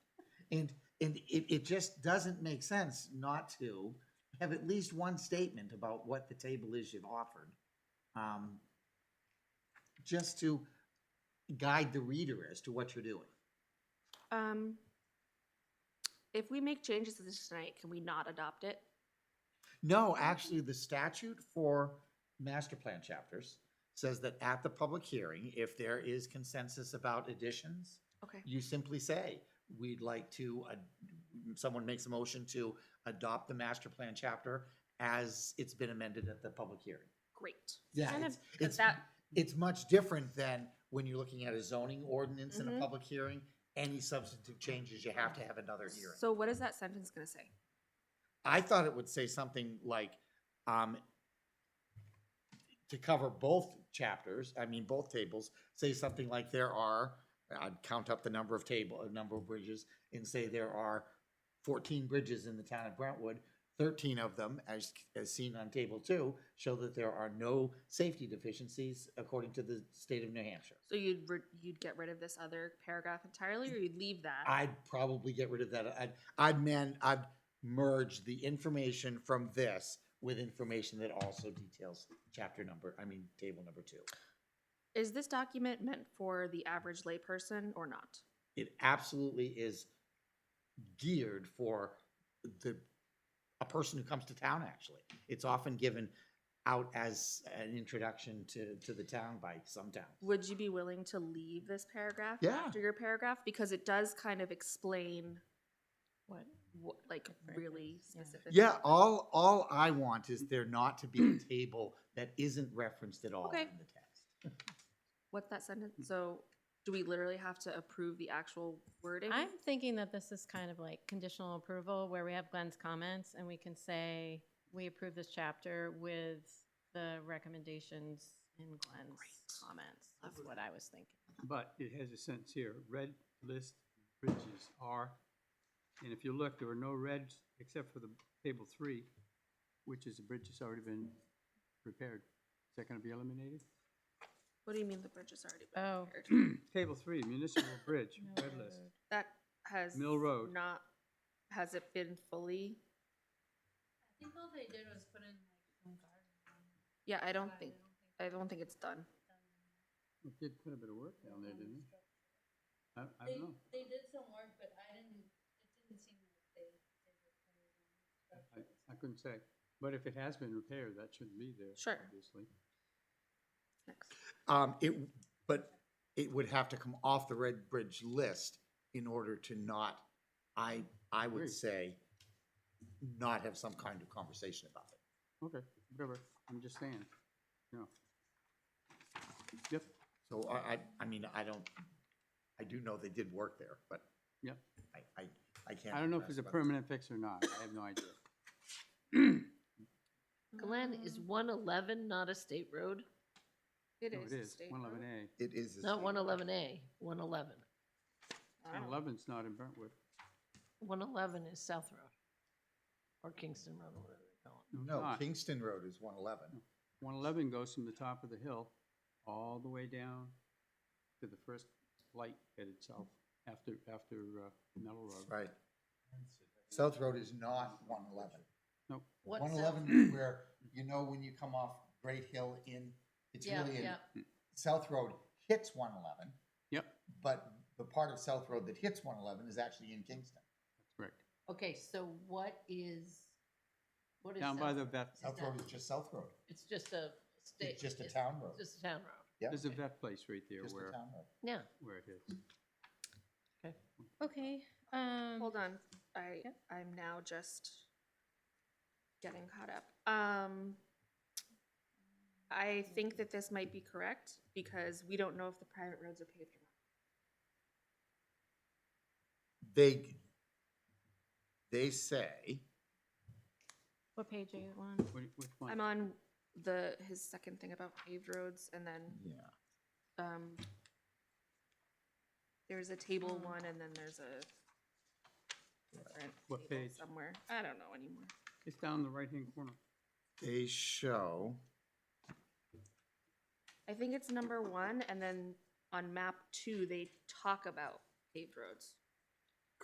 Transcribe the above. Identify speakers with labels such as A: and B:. A: And, and it, it just doesn't make sense not to have at least one statement about what the table is you've offered. um, Just to guide the reader as to what you're doing.
B: Um, if we make changes to this tonight, can we not adopt it?
A: No, actually, the statute for master plan chapters says that at the public hearing, if there is consensus about additions,
B: Okay.
A: you simply say, we'd like to, uh, someone makes a motion to adopt the master plan chapter as it's been amended at the public hearing.
B: Great.
A: Yeah,
B: Kind
A: it's-
B: of, 'cause
A: it's-
B: that,
A: It's much different than when you're looking at a zoning ordinance in a
B: Mhm.
A: public hearing. Any substantive changes, you have to have another hearing.
B: so what is that sentence gonna say?
A: I thought it would say something like, um, to cover both chapters, I mean, both tables, say something like there are, I'd count up the number of table, a number of bridges, and say there are fourteen bridges in the town of Brentwood. Thirteen of them, as, as seen on table two, show that there are no safety deficiencies according to the state of New Hampshire.
B: So you'd, ri- you'd get rid of this other paragraph entirely, or you'd leave that?
A: I'd probably get rid of that. I'd, I'd man, I'd merge the information from this with information that also details chapter number, I mean, table number two.
B: Is this document meant for the average layperson or not?
A: It absolutely is geared for the, a person who comes to town, actually. It's often given out as an introduction to, to the town by some towns.
B: Would you be willing to leave this paragraph
A: Yeah.
B: after your paragraph? Because it does kind of explain
C: What?
B: what, like
C: Different
B: really
C: things, yeah.
B: specific.
A: Yeah, all, all I want is there not to be a table that isn't referenced at all in
B: Okay.
A: the text.
B: What's that sentence? So do we literally have to approve the actual wording?
C: I'm thinking that this is kind of like conditional approval where we have Glenn's comments and we can say, we approve this chapter with the recommendations in Glenn's comments. That's what I was thinking.
D: But it has a sentence here, red list bridges are, and if you look, there are no reds except for the table three, which is a bridge that's already been repaired. Is that gonna be eliminated?
B: What do you mean the bridge is already been
C: Oh.
B: repaired?
D: Table three, municipal bridge, red list.
B: That has.
D: Mill Road.
B: Not, has it been fully?
E: I think all they did was put in like some garden.
B: Yeah, I don't think, I don't think it's done.
D: It did put a bit of work down there, didn't it? I, I
E: They,
D: don't know.
E: they did some work, but I didn't, it didn't seem like they did.
D: I, I couldn't say. But if it has been repaired, that shouldn't be there.
B: Sure.
D: Obviously.
A: Um, it, but it would have to come off the Red Bridge list in order to not, I, I
D: Agree.
A: would say, not have some kind of conversation about it.
D: Okay, whatever. I'm just saying, you know. Yep,
A: So I, I, I mean, I don't, I do know they did work there, but.
D: Yep.
A: I, I, I can't.
D: I don't know if it's a
A: address whether-
D: permanent fix or not. I have no idea.
F: Glenn, is one eleven not a state road?
B: Um, It
D: No,
B: is.
D: it is, one eleven A.
A: It is. a
F: Not
A: state
F: one
A: road.
F: eleven A, one eleven.
B: Oh.
D: One eleven's not in Brentwood.
F: One eleven is South Road. Or Kingston Road, or whatever they call
A: No, Kingston Road is one eleven.
D: One eleven goes from the top of the hill all the way down to the first light headed south after, after uh, Metal Road.
A: Right. South Road is not one eleven.
D: Nope.
F: it. What's
A: One
F: that?
A: eleven is where, you know, when you come off Great Hill in, it's
F: Yeah,
A: really in
F: yeah.
A: South Road hits one eleven,
D: Yep,
A: but the part of South Road that hits one eleven is actually in Kingston.
D: correct.
F: Okay, so what is, what is?
D: Down by
F: South
D: the
F: Road?
D: vet,
F: Is
A: South
F: that-
A: Road is just South Road.
F: It's just a state.
A: It's just a town road.
F: Just a town road.
A: Yeah,
D: there's a
F: Okay.
D: vet place right there
A: just
D: where,
A: a town road.
F: Yeah.
D: where it is.
C: Okay, um.
B: Hold on, I,
C: Yep.
B: I'm now just getting caught up. Um, I think that this might be correct because we don't know if the private roads are paved or not.
A: They, they say,
C: What page are you on?
D: What- Which one?
B: I'm on the, his second thing about paved roads and then,
A: yeah,
B: um, there's a table one and then there's a different
D: What
B: table
D: page?
B: somewhere. I don't know anymore.
D: It's down the right-hand corner.
A: they show,
B: I think it's number one, and then on map two, they talk about paved roads.